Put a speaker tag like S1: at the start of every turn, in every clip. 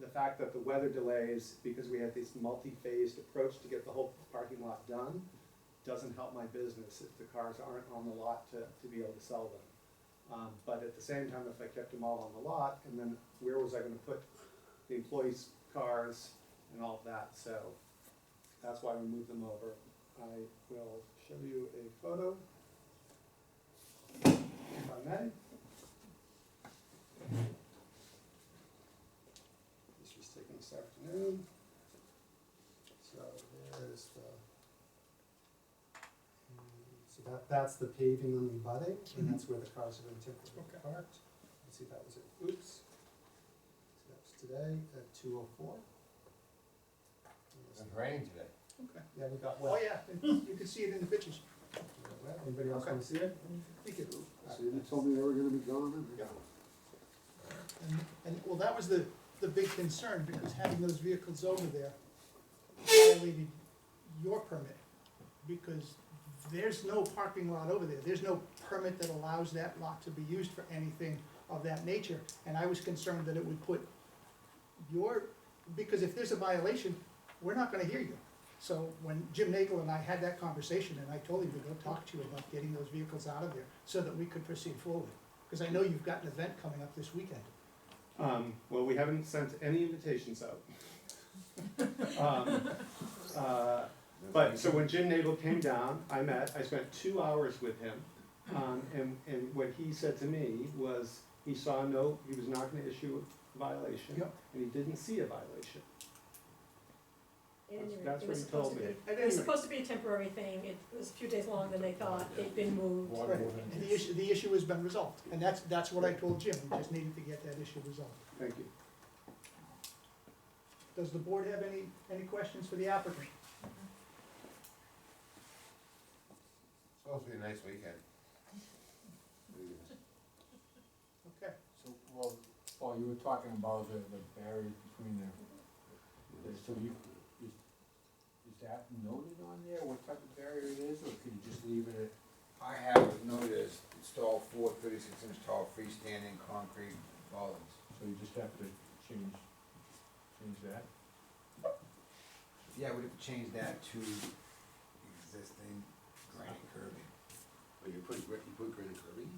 S1: the fact that the weather delays, because we had this multi-phased approach to get the whole parking lot done, doesn't help my business if the cars aren't on the lot to, to be able to sell them. Um, but at the same time, if I kept them all on the lot, and then where was I gonna put the employees' cars and all of that, so that's why we moved them over. I will show you a photo. If I may. This was taken this afternoon. So there is the. hmm, So that, that's the paving on the abutting, and that's where the cars are gonna typically
S2: Okay.
S1: parked. Let's see, that was it, oops. So that was today at two oh four.
S3: It's raining today.
S2: Okay.
S1: Yeah, we got
S2: Oh,
S1: wet.
S2: yeah, you can see it in the pictures.
S1: We got wet. Anybody else wanna see it?
S2: Thank you.
S4: So you told me they were gonna be gone?
S2: Yeah. And, and, well, that was the, the big concern, because having those vehicles over there violated your permit, because there's no parking lot over there, there's no permit that allows that lot to be used for anything of that nature, and I was concerned that it would put your, because if there's a violation, we're not gonna hear you. So when Jim Nagel and I had that conversation, and I told him to go talk to you about getting those vehicles out of there, so that we could proceed forward, because I know you've got an event coming up this weekend.
S1: Um, well, we haven't sent any invitations out. Um, uh, But, so when Jim Nadel came down, I met, I spent two hours with him. Um, and, and what he said to me was, he saw no, he was not gonna issue a violation.
S2: Yep.
S1: And he didn't see a violation.
S5: And
S1: That's
S5: it
S1: what
S5: was
S1: he told
S5: supposed
S1: me.
S5: to be,
S2: At
S5: it was
S2: any rate,
S5: supposed to be a temporary thing, it was a few days longer than they thought, it'd been moved.
S3: Water
S2: Right.
S3: moving.
S2: the issue, the issue has been resolved, and that's, that's what I told Jim, we just needed to get that issue resolved.
S1: Thank you.
S2: Does the board have any, any questions for the applicant?
S3: Supposed to be a nice weekend.
S2: Okay,
S6: So, well, Paul, you were talking about the, the barriers between the, the- so you, is, is that noted on there, what type of barrier it is, or could you just leave it at?
S7: I have noticed install four thirty-six inch tall freestanding concrete bollards.
S6: So you just have to change, change that?
S7: Yeah, we'd have to change that to existing granite curbing.
S4: Are you putting, you put granite curbing?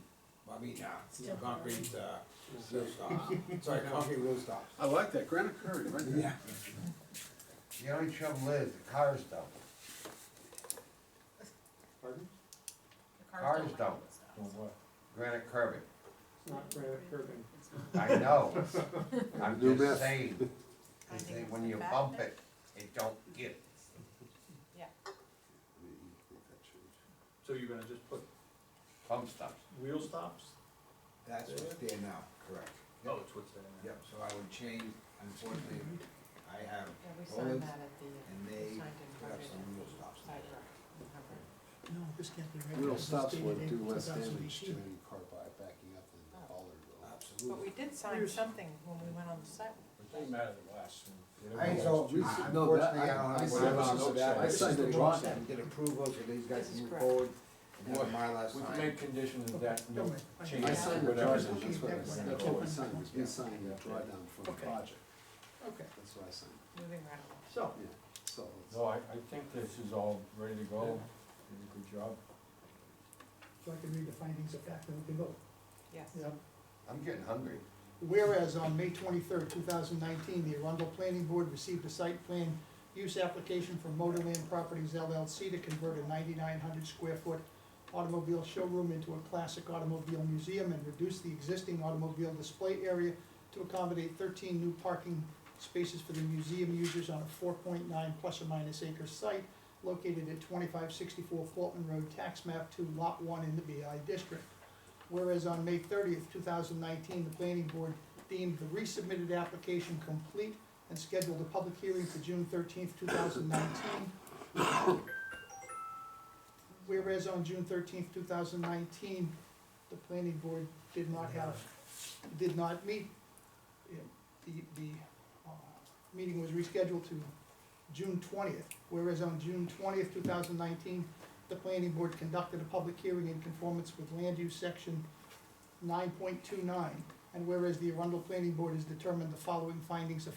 S7: Well, I mean, uh,
S5: Still
S7: concrete, uh, roof tops, sorry, concrete roof tops.
S4: I like that, granite curbing, right
S7: Yeah.
S4: there.
S7: The only trouble is, the cars don't,
S1: Pardon?
S7: cars don't,
S6: Or what?
S7: granite curbing,
S1: It's not granite curbing.
S7: I know, I'm
S4: New
S7: just
S4: myth.
S7: saying. They say when you bump it, it don't get,
S8: So you're gonna just put
S7: bump stops,
S8: wheel stops?
S7: that's what's there now, correct.
S8: Oh, it's what's there now.
S7: Yep, so I would change, unfortunately, I have
S9: Yeah, we signed
S7: bullets,
S9: that at the, uh,
S7: and they
S9: we signed in
S7: put up
S9: Harvard
S7: some wheel stops.
S9: side road in Harvard.
S2: no, this can't be right.
S4: Real
S2: This was
S4: stops
S2: dated
S4: would do
S2: in
S4: less damage to
S2: 2018.
S4: any car by backing up than the bollard will.
S7: Absolutely.
S9: But we did sign something when we went on the site.
S6: It doesn't matter the last one.
S7: I ain't so, unfortunately, I don't have.
S6: I signed
S4: the drawing.
S7: Get approval so these guys
S9: This
S7: can move
S9: is correct.
S7: forward and have
S6: What-
S7: my last
S6: We
S7: sign.
S6: can make conditions of that, no
S2: Don't worry. I-
S6: change.
S4: I signed the drawdown,
S6: Whatever.
S4: that's what I,
S2: Okay.
S4: that's what I signed, was me signing the drawdown for the
S2: Okay.
S4: project,
S2: Okay,
S4: that's what I signed,
S9: moving right along.
S2: so,
S4: yeah, so. it's-
S6: No, I, I think this is all ready to go, you did a good job.
S2: so I can read the findings of fact and we can vote.
S9: Yes.
S2: Yeah.
S7: I'm getting hungry.
S2: Whereas on May twenty-third, two thousand nineteen, the Arundel Planning Board received a site plan use application from Motorland Properties LLC to convert a ninety-nine hundred square foot automobile showroom into a classic automobile museum and reduce the existing automobile display area to accommodate thirteen new parking spaces for the museum users on a four point nine plus or minus acre site located at twenty-five sixty-four Fulton Road, tax map two, lot one in the BI district. Whereas on May thirtieth, two thousand nineteen, the planning board deemed the resubmitted application complete and scheduled a public hearing for June thirteenth, two thousand nineteen. Whereas on June thirteenth, two thousand nineteen, the planning board did not have, did not meet. Yeah, The, the, uh, meeting was rescheduled to June twentieth, whereas on June twentieth, two thousand nineteen, the planning board conducted a public hearing in conformance with land use section nine point two nine. And whereas the Arundel Planning Board has determined the following findings of